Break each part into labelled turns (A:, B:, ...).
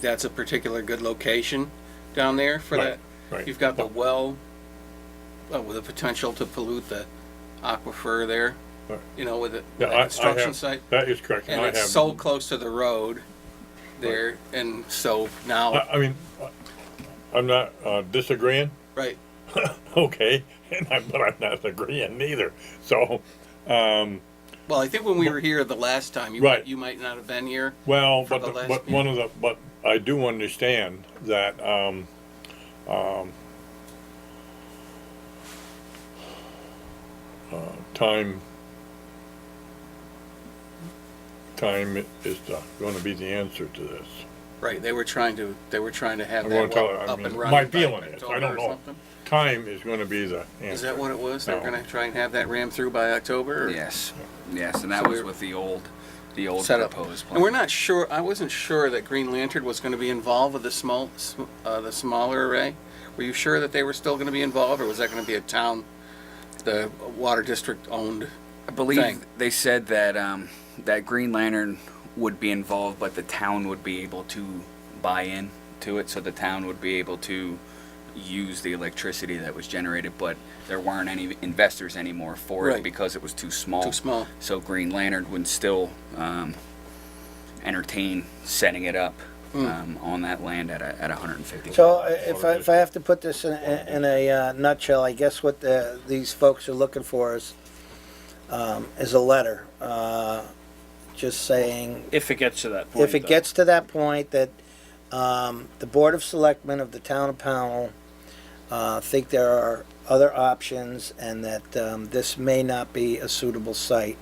A: that's a particular good location down there for
B: Right,
A: that.
B: right.
A: You've got the well, uh, with the potential to pollute the aquifer there,
B: Right.
A: you know, with the with
B: Yeah,
A: the
B: I- I
A: construction
B: have-
A: site.
B: That is correct, and
A: And
B: I
A: it's so
B: have,
A: close to the road there, and so
B: I,
A: now,
B: I mean, I- I'm not uh, disagreeing,
A: right,
B: okay, and I, but I'm not agreeing neither, so,
A: well, I think when we were here the last time, you
B: Right.
A: might, you might not have been here.
B: well,
A: For
B: but,
A: the
B: the-
A: last
B: but
A: meeting.
B: one of the, but I do understand that, um, um, uh, time, time is going to be the answer to this.
A: Right, they were trying to, they were trying to have
B: I'm
A: that
B: gonna tell,
A: well
B: I
A: up and
B: mean,
A: running.
B: my
A: by
B: feeling is, I
A: October
B: don't
A: or
B: know,
A: something.
B: time is gonna be the answer.
A: Is that what it was? They're
B: No.
A: gonna try and have that rammed through by October? or-
C: Yes, yes, and that
A: So
C: was
A: we're-
C: with the old, the old
A: set up.
C: proposed plan.
A: And we're not sure, I wasn't sure that Green Lantern was going to be involved with the small, sm- uh, the smaller array. Were you sure that they were still going to be involved, or was that going to be a town, the water district owned?
C: I believe
A: thing.
C: they said that um, that Green Lantern would be involved, but the town would be able to buy in to it, so the town would be able to use the electricity that was generated, but there weren't any investors anymore for
A: Right.
C: it because it was too small.
A: Too small.
C: So Green Lantern would still um, entertain setting it up um, on that land at a, at 150.
D: So uh, if I, if I have to put this in, a- in a uh, nutshell, I guess what the, these folks are looking for is, um, is a letter, uh, just saying,
E: If it gets to that point.
D: if it
E: though.
D: gets to that point that, um, the Board of Selectmen of the Town of Pownell, uh, think there are other options and that, um, this may not be a suitable site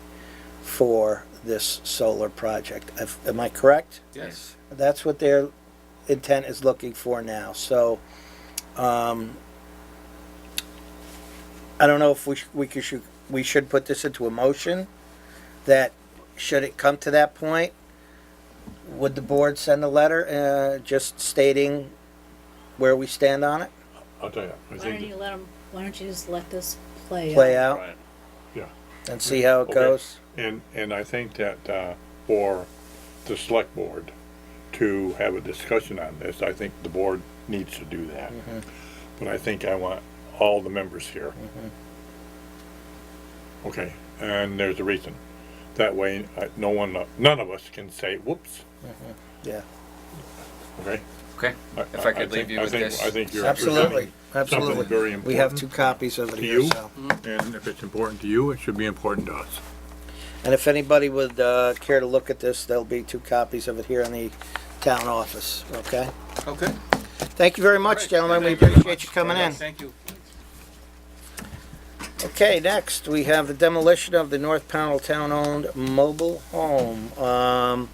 D: for this solar project. If- Am I correct?
A: Yes.
D: That's what their intent is looking for now, so, um, I don't know if we, sh- we could, should, we should put this into a motion, that should it come to that point, would the board send a letter, uh, just stating where we stand on it,
B: I'll tell you, I
F: Why don't
B: think,
F: you let 'em- why don't you just let this play out?
D: play out,
E: Right.
B: yeah,
D: and see how it
B: Okay.
D: goes?
B: and, and I think that, uh, for the select board to have a discussion on this, I think the board needs to do that.
D: Mm-hmm.
B: But I think I want all the members here.
D: Mm-hmm.
B: Okay, and there's a reason. That way, I- no one, none of us can say, whoops,
D: Mm-hmm. Yeah,
B: okay?
C: Okay. If I could leave
B: think-
C: you
B: I
C: with
B: think-
C: this.
B: I think you're.
D: absolutely,
B: something
D: absolutely.
B: very
D: We have
B: important
D: two copies of it
B: to
D: here,
B: you,
D: so.
B: and if it's important to you, it should be important to us.
D: And if anybody would uh, care to look at this, there'll be two copies of it here in the town office, okay?
A: Okay.
D: Thank you very much,
A: Great.
D: gentlemen, we
A: Thank you very
D: appreciate
A: much.
D: you coming in.
A: Thank you.
D: Okay, next, we have the demolition of the North Pownell Town-owned mobile home. Um,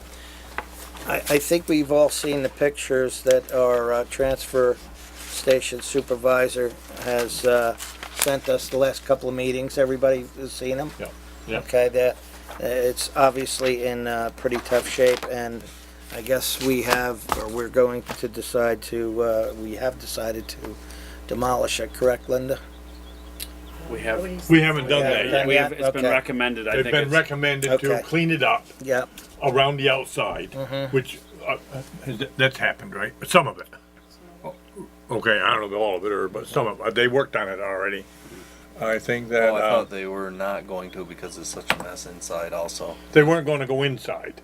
D: I, I think we've all seen the pictures that our uh, transfer station supervisor has uh, sent us the last couple of meetings. Everybody has seen them?
B: Yeah, yeah.
D: Okay, the, uh, it's obviously in uh, pretty tough shape, and I guess we have, or we're going to decide to, uh, we have decided to demolish it, correct, Linda?
E: We have,
F: Nobody's-
B: We haven't done that
D: Yeah,
B: yet.
E: we have, it's been
D: Okay.
E: recommended, I
B: They've
E: think
B: been
E: it's,
B: recommended to
D: Okay. Mm-hmm.
B: clean it up
D: Yep.
B: around the outside, which, uh, has- that's happened, right? Some of it. Okay, I don't know all of it, or, but some of, it. they worked on it already. I think that,
G: Oh, I
B: uh,
G: thought they were not going to because it's such a mess inside also.
B: they weren't gonna go inside,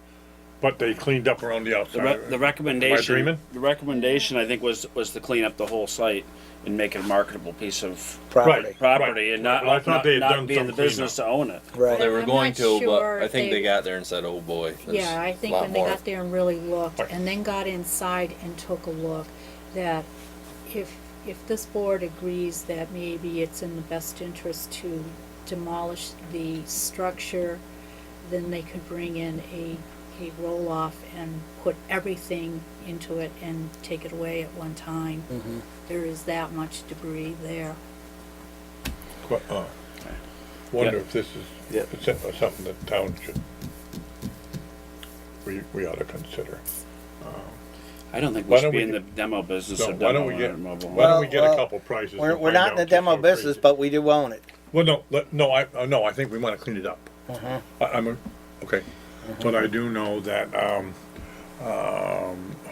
B: but they cleaned up around the
E: the re- the
B: outside.
E: recommendation,
B: dreaming?
E: the recommendation, I think, was, was to clean up the whole site and make it a marketable piece of
D: property.
E: property and not,
B: Well, I thought
E: not,
B: they had
E: not
B: done
E: be in the
B: some cleanup.
E: business to own it.
D: Right.
G: They were
F: I'm
G: going
F: not
G: to,
F: sure
G: but I
F: if
G: think
F: they-
G: they got there and said, "Oh boy." there's
F: Yeah, I think
G: a lot
F: when they
G: more."
F: got there and really looked,
B: Right.
F: and then got inside and took a look, that if, if this board agrees that maybe it's in the best interest to demolish the structure, then they could bring in a, a roll-off and put everything into it and take it away at one time.
D: Mm-hmm.
F: There is that much debris there.
B: Qu- uh, Wonder if this is s- something that town should, we, we ought to consider.
E: I don't think
B: Why
E: we should
B: don't
E: be
B: we
E: in the
B: get-
E: demo business
B: So
E: of
B: why don't we
E: demoing
B: get,
E: a mobile
B: why
E: home.
B: don't we get a
D: Well,
B: couple prices? and
D: We're, we're
B: find
D: not in
B: out
D: the
B: just how
D: demo business,
B: crazy-
D: but we do own it.
B: Well, no, let, no, I, uh, no, I think we wanna clean it up.
D: Uh-huh.
B: I, I'm, a- okay, but I do know that, um, um,